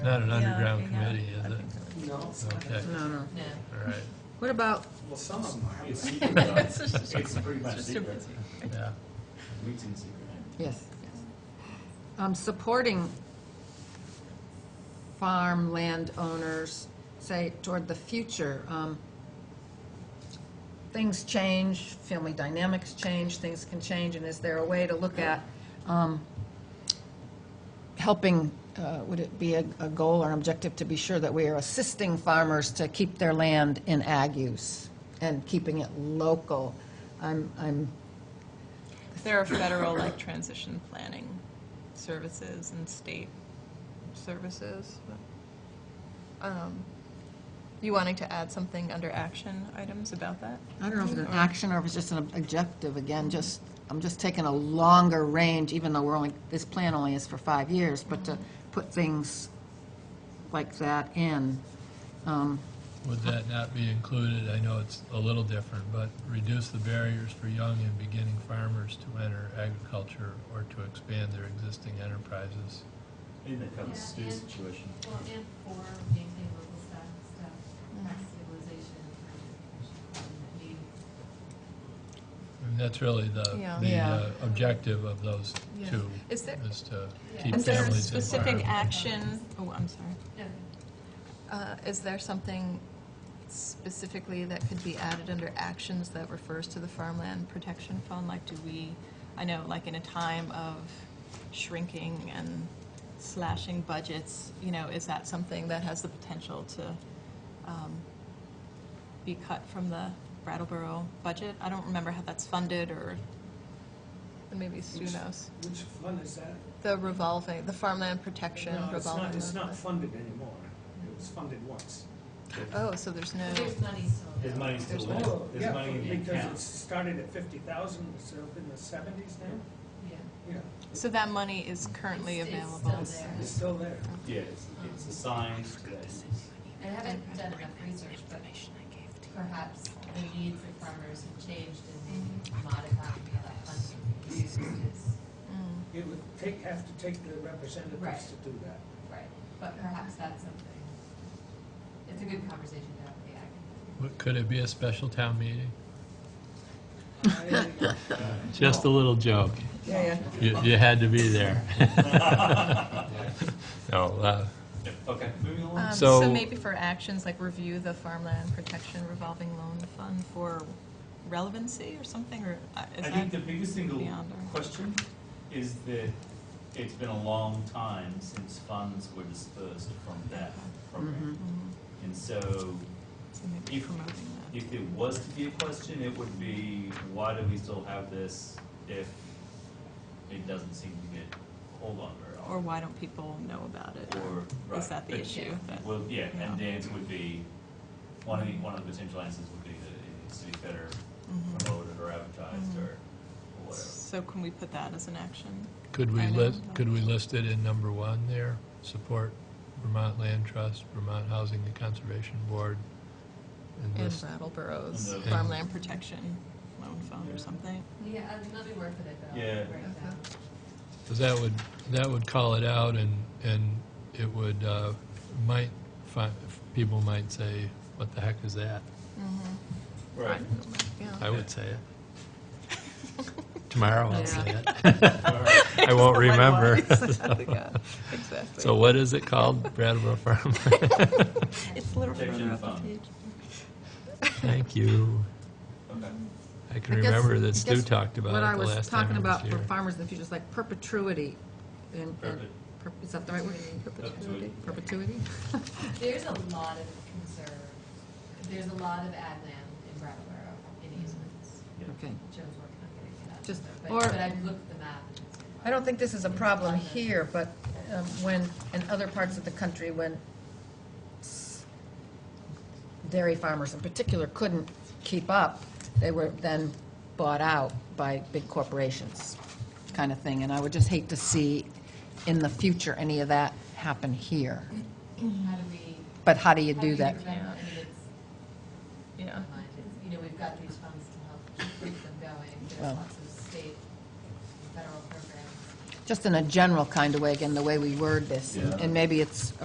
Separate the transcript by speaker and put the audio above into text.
Speaker 1: Not an
Speaker 2: Yeah,
Speaker 1: underground
Speaker 2: okay, yeah.
Speaker 1: committee, is
Speaker 2: I
Speaker 1: it?
Speaker 2: think so.
Speaker 3: No.
Speaker 1: Okay,
Speaker 4: No, no.
Speaker 2: No.
Speaker 1: all right,
Speaker 4: What about,
Speaker 3: Well, some of them are.
Speaker 5: It's secret, though.
Speaker 2: It's just-
Speaker 5: It's pretty much
Speaker 2: it's just a
Speaker 5: secret.
Speaker 1: yeah.
Speaker 5: Meets in secret.
Speaker 4: yes, um, supporting farmland owners, say, toward the future, um, things change, family dynamics change, things can change, and is there a way to look at, um, helping, uh, would it be a, a goal or objective to be sure that we are assisting farmers to keep their land in ag use and keeping it local? I'm, I'm
Speaker 2: There are federal like transition planning services and state services. Um, You wanting to add something under action items about that?
Speaker 4: I don't know if it's an action or if it's just an objective, again, just, I'm just taking a longer range, even though we're only, this plan only is for five years, but to put things like that in. Um,
Speaker 1: Would that not be included, I know it's a little different, but reduce the barriers for young and beginning farmers to enter agriculture or to expand their existing enterprises?
Speaker 5: I think that covers
Speaker 6: Yeah,
Speaker 5: Stu's
Speaker 6: and-
Speaker 5: situation.
Speaker 6: Well, and for maintain local stock, stock
Speaker 2: Mm-hmm.
Speaker 6: stabilization and need
Speaker 1: I mean, that's really the,
Speaker 2: Yeah.
Speaker 1: the
Speaker 4: Yeah.
Speaker 1: uh, objective of those
Speaker 2: Yeah.
Speaker 1: two,
Speaker 2: Is there,
Speaker 1: is to
Speaker 6: Yeah.
Speaker 1: keep
Speaker 2: is there a
Speaker 1: families in
Speaker 2: specific
Speaker 1: farm.
Speaker 2: action? Oh, I'm sorry.
Speaker 6: Okay.
Speaker 2: Uh, Is there something specifically that could be added under actions that refers to the farmland protection fund? Like, do we, I know, like, in a time of shrinking and slashing budgets, you know, is that something that has the potential to um, be cut from the Brattleboro budget? I don't remember how that's funded, or maybe Sue
Speaker 3: Which-
Speaker 2: knows.
Speaker 3: Which fund is that?
Speaker 2: The revolving, the farmland protection
Speaker 3: No, it's
Speaker 2: revolving.
Speaker 3: not, it's not
Speaker 2: loan.
Speaker 3: funded anymore. It was funded once.
Speaker 2: Oh, so there's no.
Speaker 6: But There's money still.
Speaker 5: His money's still
Speaker 2: There's
Speaker 5: there.
Speaker 2: money.
Speaker 5: There's money in the account.
Speaker 3: Oh, Because it started at fifty thousand, it's up in the seventies now?
Speaker 6: Yeah.
Speaker 3: Yeah,
Speaker 2: So that money is currently
Speaker 6: It's- it's
Speaker 2: available?
Speaker 6: still
Speaker 3: it's still there.
Speaker 5: Yeah, it's, it's assigned to that.
Speaker 6: there. I haven't done enough research, but perhaps the needs of farmers have changed and
Speaker 2: Mm-hmm.
Speaker 6: maybe modifying how that funding is used is,
Speaker 2: Mm.
Speaker 3: It would take, have to take the representatives
Speaker 6: Right.
Speaker 3: to do that.
Speaker 6: right, but perhaps that's something. It's a good conversation to have, yeah. I
Speaker 1: What- Could it be a special town meeting?
Speaker 3: I- uh,
Speaker 1: Just a little joke.
Speaker 4: Yeah,
Speaker 1: You, you had to be there. No, uh,
Speaker 5: Okay, moving along.
Speaker 2: Um,
Speaker 1: So-
Speaker 2: So maybe for actions, like review the farmland protection revolving loan fund for relevancy or something, or uh, is
Speaker 5: I think the
Speaker 2: that-
Speaker 5: biggest single
Speaker 2: beyond our-
Speaker 5: question is that it's been a long time since funds were dispersed from that program.
Speaker 2: Mhm.
Speaker 5: And so
Speaker 2: So maybe
Speaker 5: If-
Speaker 2: promoting that.
Speaker 5: if it was to be a question, it would be, why do we still have this if it doesn't seem to get hold on very often?
Speaker 2: Or why don't people know about it?
Speaker 5: Or, right.
Speaker 2: Is that the
Speaker 5: but-
Speaker 2: issue? that-
Speaker 5: Well, yeah, and the
Speaker 2: Yeah.
Speaker 5: answer would be, one of the, one of the potential answers would be that it needs to be better
Speaker 2: Mhm.
Speaker 5: promoted or advertised
Speaker 2: Mhm.
Speaker 5: or or whatever.
Speaker 2: So can we put that as an action?
Speaker 1: Could we
Speaker 2: I know.
Speaker 1: list, could we list it in number one there? Support Vermont Land Trust, Vermont Housing and Conservation Board, and
Speaker 2: And
Speaker 1: list,
Speaker 2: Brattleboro's
Speaker 5: And
Speaker 1: the-
Speaker 2: farmland protection loan fund or something?
Speaker 6: can- Yeah, uh, let me work with it, but
Speaker 5: Yeah.
Speaker 6: I'll write it down.
Speaker 1: 'cause that would, that would call it out, and, and it would, uh, might, fi- people might say, what the heck is that? Mm-hmm.
Speaker 5: Right.
Speaker 2: Yeah.
Speaker 1: I would say it. Tomorrow I'll say it.
Speaker 5: All right.
Speaker 1: I won't remember.
Speaker 2: Likewise. Yeah, Exactly.
Speaker 1: So what is it called? Brattleboro Farm?
Speaker 2: It's a little
Speaker 5: Protection
Speaker 2: further up the
Speaker 5: fund.
Speaker 2: page.
Speaker 1: Thank you.
Speaker 5: Okay.
Speaker 1: I can
Speaker 4: I guess-
Speaker 1: remember
Speaker 4: I
Speaker 1: that Stu
Speaker 4: guess
Speaker 1: talked
Speaker 4: What
Speaker 1: about
Speaker 4: I
Speaker 1: it the
Speaker 4: was
Speaker 1: last time
Speaker 4: talking
Speaker 1: he was
Speaker 4: about
Speaker 1: here.
Speaker 4: for farmers in the future is like perpetuity. and- and-
Speaker 5: Perpet-
Speaker 4: per- Is that the right word?
Speaker 5: Perpetuity.
Speaker 4: Perpetuity?
Speaker 6: There's a lot of conserve, there's a lot of ad land in Brattleboro in easements.
Speaker 4: Okay.
Speaker 6: Joe's working on getting to that.
Speaker 4: Just-
Speaker 6: But,
Speaker 4: or-
Speaker 6: but I've looked at the map. and it's-
Speaker 4: I don't think this is a problem here, but um, when, in other parts of the country, when s- dairy farmers in particular couldn't keep up, they were then bought out by big corporations, kind of thing. And I would just hate to see in the future any of that happen here.
Speaker 6: How do we?
Speaker 4: But how do you
Speaker 6: how
Speaker 4: do that?
Speaker 6: prevent- I mean, it's
Speaker 2: Yeah.
Speaker 6: online. It's- You know, we've got these funds to help keep them going.
Speaker 4: Well.
Speaker 6: There's lots of state and federal programs.
Speaker 4: Just in a general kind of way, again, the way we word this.
Speaker 5: Yeah.
Speaker 4: And maybe it's